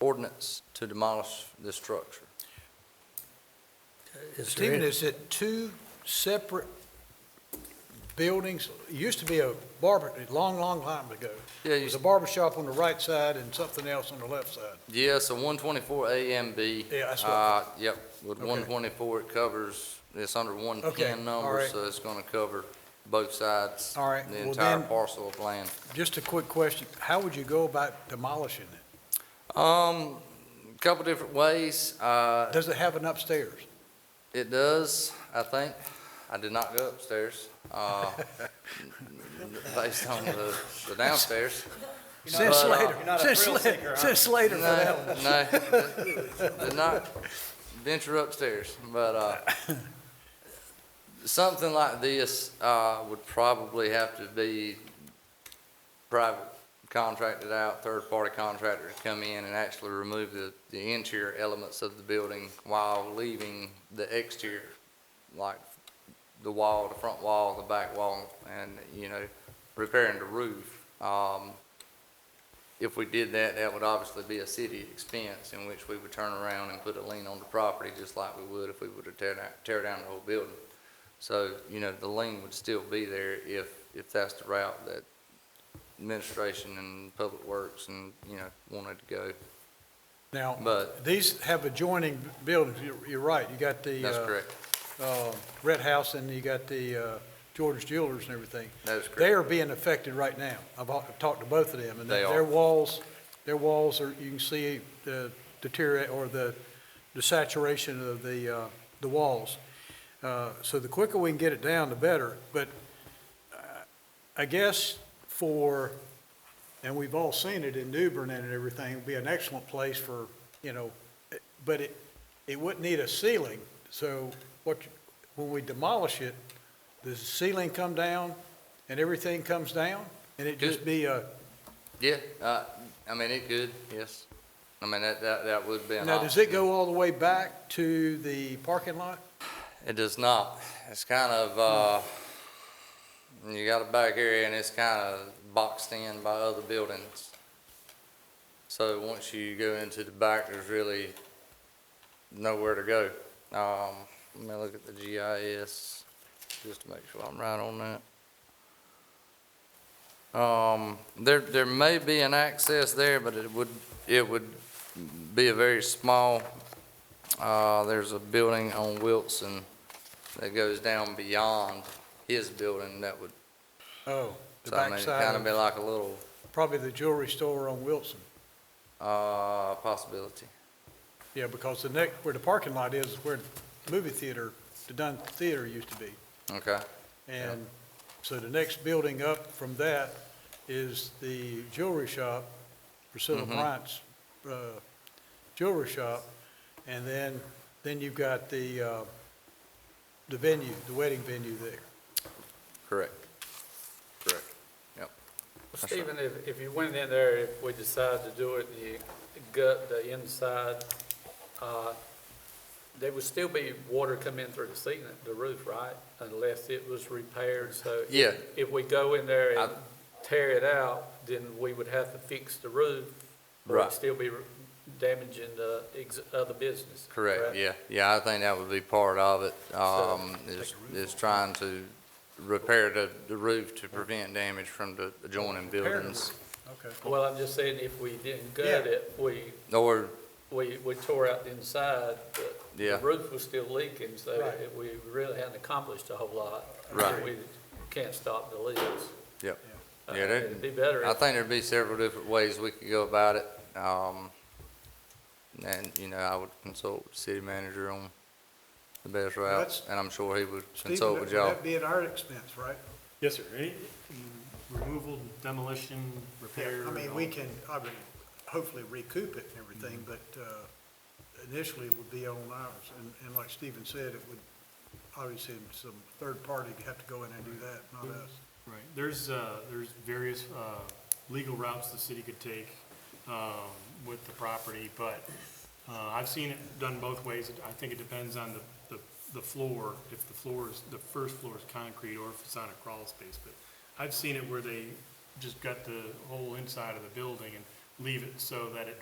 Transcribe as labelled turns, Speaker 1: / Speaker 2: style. Speaker 1: ordinance to demolish this structure.
Speaker 2: Is there
Speaker 3: Stephen,
Speaker 2: any-
Speaker 3: is it two separate buildings? It used to be a barber, a long, long time ago.
Speaker 1: Yeah,
Speaker 3: It
Speaker 1: you,
Speaker 3: was a barber shop on the right side and something else on the left side.
Speaker 1: yeah, so one twenty-four A and B.
Speaker 3: Yeah, that's what I
Speaker 1: Uh, yep, with
Speaker 3: Okay.
Speaker 1: one twenty-four, it covers, it's under one
Speaker 3: Okay,
Speaker 1: ten
Speaker 3: all
Speaker 1: number,
Speaker 3: right.
Speaker 1: so it's gonna cover both sides.
Speaker 3: All right,
Speaker 1: The
Speaker 3: well
Speaker 1: entire
Speaker 3: then-
Speaker 1: parcel of land.
Speaker 3: Just a quick question. How would you go about demolishing it?
Speaker 1: Um, couple different ways, uh,
Speaker 3: Does it have an upstairs?
Speaker 1: It does, I think. I did not go upstairs, uh, based on the the downstairs.
Speaker 3: Since
Speaker 1: But, uh,
Speaker 3: later, since later, since later for that one.
Speaker 1: No, no, did not venture upstairs, but, uh, something like this, uh, would probably have to be private contracted out, third-party contractor to come in and actually remove the, the interior elements of the building while leaving the exterior, like the wall, the front wall, the back wall, and, you know, repairing the roof. Um, if we did that, that would obviously be a city expense in which we would turn around and put a lien on the property, just like we would if we were to tear down, tear down the whole building. So, you know, the lien would still be there if, if that's the route that administration and public works and, you know, wanted to go.
Speaker 3: Now,
Speaker 1: But
Speaker 3: these have adjoining buildings. You're, you're right. You got the,
Speaker 1: that's
Speaker 3: uh,
Speaker 1: correct.
Speaker 3: uh, Red House and you got the, uh, Jordan's Jewelers and everything.
Speaker 1: That is
Speaker 3: They
Speaker 1: correct.
Speaker 3: are being affected right now. I've al- talked to both of them, and
Speaker 1: They
Speaker 3: their
Speaker 1: are.
Speaker 3: walls, their walls are, you can see the deteriorate, or the the saturation of the, uh, the walls. Uh, So the quicker we can get it down, the better. But uh, I guess for, and we've all seen it in New Bern and everything, it'd be an excellent place for, you know, eh, but it, it wouldn't need a ceiling. So what, you- when we demolish it, does the ceiling come down and everything comes down? And it just be a,
Speaker 1: Yeah, uh, I mean, it could, yes. I mean, that, that, that would be an
Speaker 3: now, does it
Speaker 1: option.
Speaker 3: go all the way back to the parking lot?
Speaker 1: It does not. It's kind of, uh, you got a back area and it's kind of boxed in by other buildings. So once you go into the back, there's really nowhere to go. Um, let me look at the GIS just to make sure I'm right on that. Um, there, there may be an access there, but it would, it would be a very small uh, there's a building on Wilson that goes down beyond his building that would,
Speaker 3: Oh, the
Speaker 1: so I mean, it'd kind of
Speaker 3: backside,
Speaker 1: be
Speaker 3: of-
Speaker 1: like a little,
Speaker 3: probably the jewelry store on Wilson.
Speaker 1: uh, possibility.
Speaker 3: Yeah, because the neck, where the parking lot is, is where the movie theater, the Dunn Theater used to be.
Speaker 1: Okay,
Speaker 3: And so the next building up from that is the jewelry shop, Priscilla
Speaker 1: Mhm.
Speaker 3: Bryant's uh, jewelry shop. And then, then you've got the, uh, the venue, the wedding venue there.
Speaker 1: correct. Correct. That's right.
Speaker 2: Stephen, if, if you went in there, if we decide to do it, and you gut the inside, uh, there would still be water coming in through the ceiling, the roof, right? Unless it was repaired, so. if-
Speaker 1: Yeah.
Speaker 2: If we go in there and
Speaker 1: I-
Speaker 2: tear it out, then we would have to fix the roof. Or
Speaker 1: Right.
Speaker 2: it'd still be damaging the ex, other business.
Speaker 1: Correct, yeah. Yeah, I think that would be part of it, um,
Speaker 2: take
Speaker 1: is,
Speaker 2: the roof
Speaker 1: is trying to repair the, the roof to prevent damage from the adjoining buildings.
Speaker 3: Okay.
Speaker 2: Well, I'm just saying, if we didn't
Speaker 3: Yeah.
Speaker 2: gut it, we,
Speaker 1: Or,
Speaker 2: we, we tore out the inside, but
Speaker 1: yeah,
Speaker 2: The roof was still leaking, so
Speaker 3: Right.
Speaker 2: it- we really hadn't accomplished a whole lot.
Speaker 1: Right.
Speaker 2: We can't stop the leaks.
Speaker 1: Yep.
Speaker 2: Uh,
Speaker 1: Yeah, that-
Speaker 2: It'd be better
Speaker 1: I
Speaker 2: if
Speaker 1: think there'd be several different ways we could go about it. Um, and, you know, I would consult with the city manager on the best route,
Speaker 3: That's-
Speaker 1: and I'm sure he would
Speaker 3: Stephen,
Speaker 1: consult
Speaker 3: that-
Speaker 1: with y'all.
Speaker 3: That'd be at our expense, right?
Speaker 4: Yes, sir. Any- Removal, demolition, repair.
Speaker 3: I mean,
Speaker 4: all-
Speaker 3: we can, I mean, hopefully recoup it and everything, but uh, initially it would be on ours. And, and like Stephen said, it would, obviously, some third party would have to go in and do that, not us.
Speaker 4: Right, there's, uh, there's various, uh, legal routes the city could take, um, with the property, but, uh, I've seen it done both ways. I think it depends on the, the, the floor, if the floor is, the first floor is concrete or if it's on a crawl space, but I've seen it where they just gut the whole inside of the building and leave it so that it